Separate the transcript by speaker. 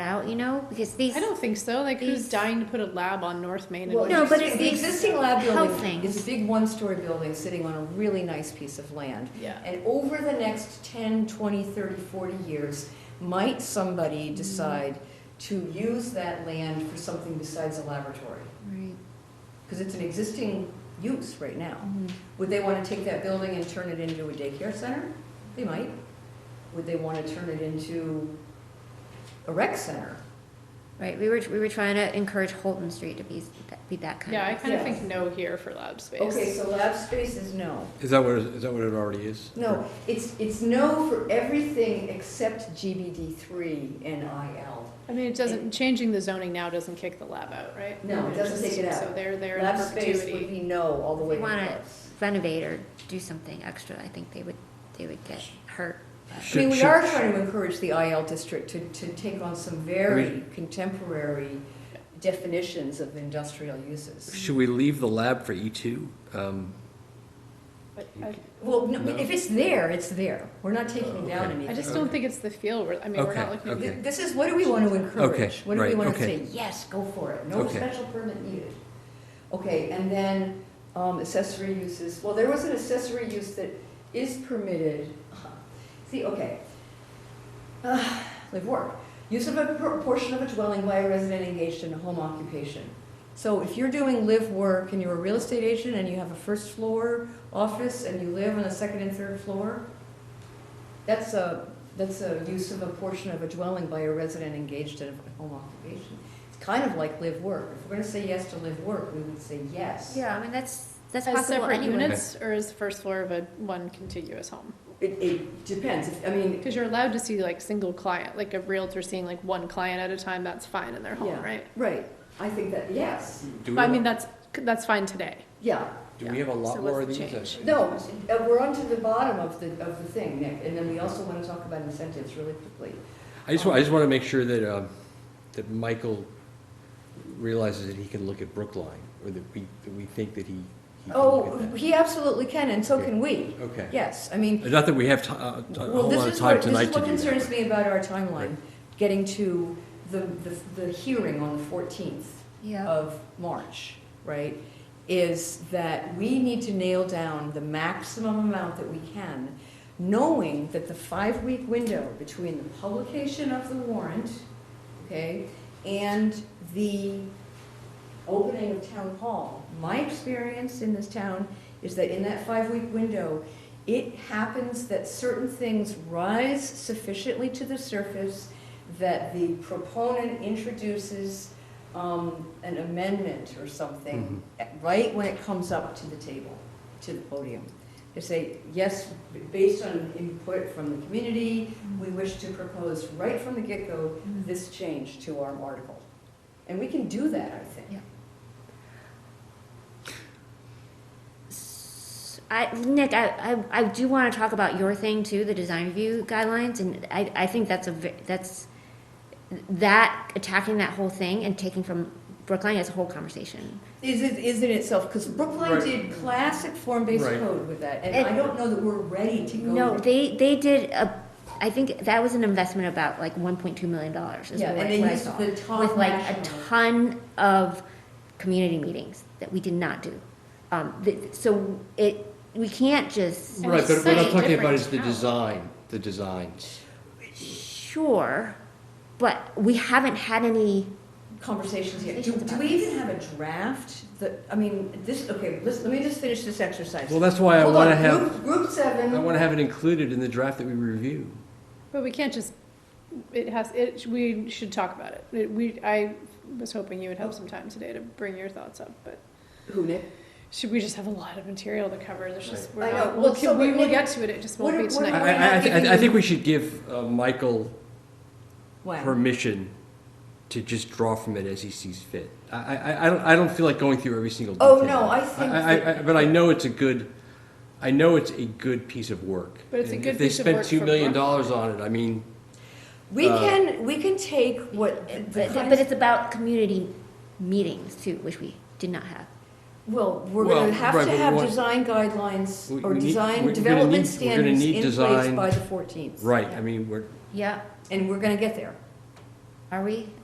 Speaker 1: out, you know, because these.
Speaker 2: I don't think so. Like, who's
Speaker 1: These-
Speaker 2: dying to put a lab on North Main? And
Speaker 3: Well,
Speaker 1: No, but it-
Speaker 3: The existing lab
Speaker 1: health
Speaker 3: building is
Speaker 1: things.
Speaker 3: a big one-story building sitting on a really nice piece of land.
Speaker 2: yeah.
Speaker 3: And over the next 10, 20, 30, 40 years, might
Speaker 1: Mm-hmm.
Speaker 3: somebody decide to use that land for something besides a laboratory?
Speaker 1: Right.
Speaker 3: Because it's an existing use right now.
Speaker 1: Mhm.
Speaker 3: Would they want to take that building and turn it into a daycare center? They might. Would they want to turn it into a rec center?
Speaker 1: Right, we were, we were trying to encourage Holton Street to be, be that kind
Speaker 2: Yeah, I
Speaker 1: of.
Speaker 2: kind of
Speaker 3: Yeah.
Speaker 2: think no here for lab space.
Speaker 3: Okay, so lab space is no.
Speaker 4: Is that what, is that what it already is?
Speaker 3: No, it's, it's no for everything except GBD three and IL.
Speaker 2: I mean, it doesn't, changing the zoning now doesn't kick the lab out, right?
Speaker 3: No, it doesn't take it
Speaker 2: So
Speaker 3: out.
Speaker 2: they're there in
Speaker 3: Lab space would
Speaker 2: perpetuity.
Speaker 3: be no all the way
Speaker 1: They
Speaker 3: to
Speaker 1: want it.
Speaker 3: Paris.
Speaker 1: Renovate or do something extra, I think they would, they would get hurt.
Speaker 3: I mean,
Speaker 4: Should-
Speaker 3: we
Speaker 4: should-
Speaker 3: are trying to encourage the IL district to, to take on some very contemporary definitions of industrial uses.
Speaker 4: Should we leave the lab for E2? Um,
Speaker 2: But I-
Speaker 3: Well, no,
Speaker 4: No.
Speaker 3: if it's there, it's there. We're not taking
Speaker 4: Oh,
Speaker 3: down
Speaker 4: okay.
Speaker 3: anything.
Speaker 2: I just don't think it's the feel, we're- I mean, we're
Speaker 4: Okay,
Speaker 2: not looking at
Speaker 4: okay.
Speaker 3: Th- This is, what do we want to encourage? What do we
Speaker 4: right,
Speaker 3: want to
Speaker 4: okay.
Speaker 3: say, yes, go for it, no
Speaker 4: Okay.
Speaker 3: special permit needed? Okay, and then um, accessory uses, well, there was an accessory use that is permitted. See, okay. Ah, Live work, use of a por- portion of a dwelling by a resident engaged in a home occupation. So if you're doing live work and you're a real estate agent and you have a first floor office and you live on a second and third floor, that's a, that's a use of a portion of a dwelling by a resident engaged in a home occupation. It's kind of like live work. If we're gonna say yes to live work, we would say yes.
Speaker 1: Yeah, I mean, that's, that's
Speaker 2: As
Speaker 1: possible
Speaker 2: separate
Speaker 1: anyway.
Speaker 2: units, or as the first floor of a one contiguous home?
Speaker 3: It, it depends. If- I mean,
Speaker 2: Because you're allowed to see like single client, like a realtor seeing like one client at a time, that's fine in their home,
Speaker 3: Yeah.
Speaker 2: right?
Speaker 3: right, I think that, yes,
Speaker 4: Do
Speaker 2: But
Speaker 4: we,
Speaker 2: I mean,
Speaker 4: have-
Speaker 2: that's, that's fine today.
Speaker 3: yeah.
Speaker 4: do we have a lot
Speaker 2: So
Speaker 4: more of
Speaker 2: what's
Speaker 4: these?
Speaker 2: the
Speaker 4: I-
Speaker 3: No, uh, we're on to the bottom of the, of the thing, Nick, and then we also wanna talk about incentives really quickly.
Speaker 4: I just, wa- I just want to make sure that, um, that Michael realizes that he can look at Brookline, or that we, that we think that he. he can
Speaker 3: Oh,
Speaker 4: look at that.
Speaker 3: he absolutely can, and so can we.
Speaker 4: Okay.
Speaker 3: Yes, I mean,
Speaker 4: Not that we have ti- uh, a
Speaker 3: Well,
Speaker 4: whole
Speaker 3: this
Speaker 4: lot of
Speaker 3: is
Speaker 4: time
Speaker 3: what,
Speaker 4: tonight
Speaker 3: this is
Speaker 4: to do that.
Speaker 3: what concerns me about our timeline,
Speaker 4: Right.
Speaker 3: getting to the, the, the hearing on the fourteenth
Speaker 1: Yeah.
Speaker 3: of March, right? Is that we need to nail down the maximum amount that we can, knowing that the five-week window between the publication of the warrant, okay, and the opening of town hall, my experience in this town is that in that five-week window, it happens that certain things rise sufficiently to the surface that the proponent introduces um, an amendment or something, right when it comes up to the table, to the podium. They say, yes, b- based on input from the community, we wish to propose right from the get-go this change to our article. And we can do that, I think.
Speaker 1: Yeah. S- I, Nick, I, I, I do want to talk about your thing too, the design review guidelines, and I, I think that's a, ve- that's, that, attacking that whole thing and taking from Brookline is a whole conversation.
Speaker 3: Is it, is in itself, because Brookline
Speaker 4: Right.
Speaker 3: did classic form-based
Speaker 4: Right.
Speaker 3: code with that, and
Speaker 1: It-
Speaker 3: I don't know that we're ready to go.
Speaker 1: No,
Speaker 3: there.
Speaker 1: they, they did a, I think that was an investment about like one point two million dollars is
Speaker 3: Yeah,
Speaker 1: what
Speaker 3: and
Speaker 1: what
Speaker 3: they
Speaker 1: I
Speaker 3: used
Speaker 1: saw.
Speaker 3: the top
Speaker 1: With like a
Speaker 3: national.
Speaker 1: ton of community meetings that we did not do. Um, th- so it, we can't just,
Speaker 2: And
Speaker 4: Right,
Speaker 2: it's
Speaker 4: but what
Speaker 2: such
Speaker 4: I'm
Speaker 2: a
Speaker 4: talking about
Speaker 2: different
Speaker 4: is the
Speaker 2: town.
Speaker 4: design, the designs.
Speaker 1: sure, but we haven't had any,
Speaker 3: conversations yet. Do,
Speaker 1: Conversations
Speaker 3: do
Speaker 1: about
Speaker 3: we even have a draft that, I mean, this, okay, let's, let me just finish this exercise.
Speaker 4: Well, that's why I
Speaker 3: Hold
Speaker 4: want to
Speaker 3: on,
Speaker 4: have,
Speaker 3: Group, group
Speaker 4: I
Speaker 3: seven,
Speaker 4: want to have it included in the draft that we review.
Speaker 2: But we can't just, it has, it, we should talk about it. it. We, I was hoping you would have some time today to bring your thoughts up, but
Speaker 3: who, Nick?
Speaker 2: should we just have a lot of material to cover? There's just, we're
Speaker 3: I
Speaker 2: not,
Speaker 3: know.
Speaker 2: we'll,
Speaker 3: Well, so
Speaker 2: we
Speaker 3: what-
Speaker 2: will get to it, it just won't
Speaker 3: what-
Speaker 2: be
Speaker 3: what-
Speaker 4: I,
Speaker 2: tonight.
Speaker 4: I, I, thi- I think we should give uh, Michael
Speaker 3: Wow.
Speaker 4: permission to just draw from it as he sees fit. I, I, I don't, I don't feel like going through every single detail.
Speaker 3: Oh, no, I think
Speaker 4: I, I,
Speaker 3: that-
Speaker 4: but I know it's a good, I know it's a good piece of work.
Speaker 2: But it's a
Speaker 4: And
Speaker 2: good
Speaker 4: If they
Speaker 2: piece of
Speaker 4: spent
Speaker 2: work
Speaker 4: two
Speaker 2: for
Speaker 4: million
Speaker 2: Brooklyn.
Speaker 4: dollars on it, I mean,
Speaker 3: We
Speaker 4: Uh,
Speaker 3: can, we can take what, the-
Speaker 1: but,
Speaker 3: the
Speaker 1: but
Speaker 3: kinds-
Speaker 1: it's about community meetings too, which we did not have.
Speaker 3: well, we're
Speaker 4: Well,
Speaker 3: gonna have
Speaker 4: right,
Speaker 3: to
Speaker 4: but we
Speaker 3: have
Speaker 4: want-
Speaker 3: design guidelines
Speaker 4: We-
Speaker 3: or
Speaker 4: we need- we're
Speaker 3: design
Speaker 4: gonna
Speaker 3: development
Speaker 4: need- we're gonna
Speaker 3: standards
Speaker 4: need
Speaker 3: in place
Speaker 4: design-
Speaker 3: by the fourteenth.
Speaker 4: right, I mean, we're,
Speaker 1: Yeah.
Speaker 3: And we're gonna get there.
Speaker 1: Are we?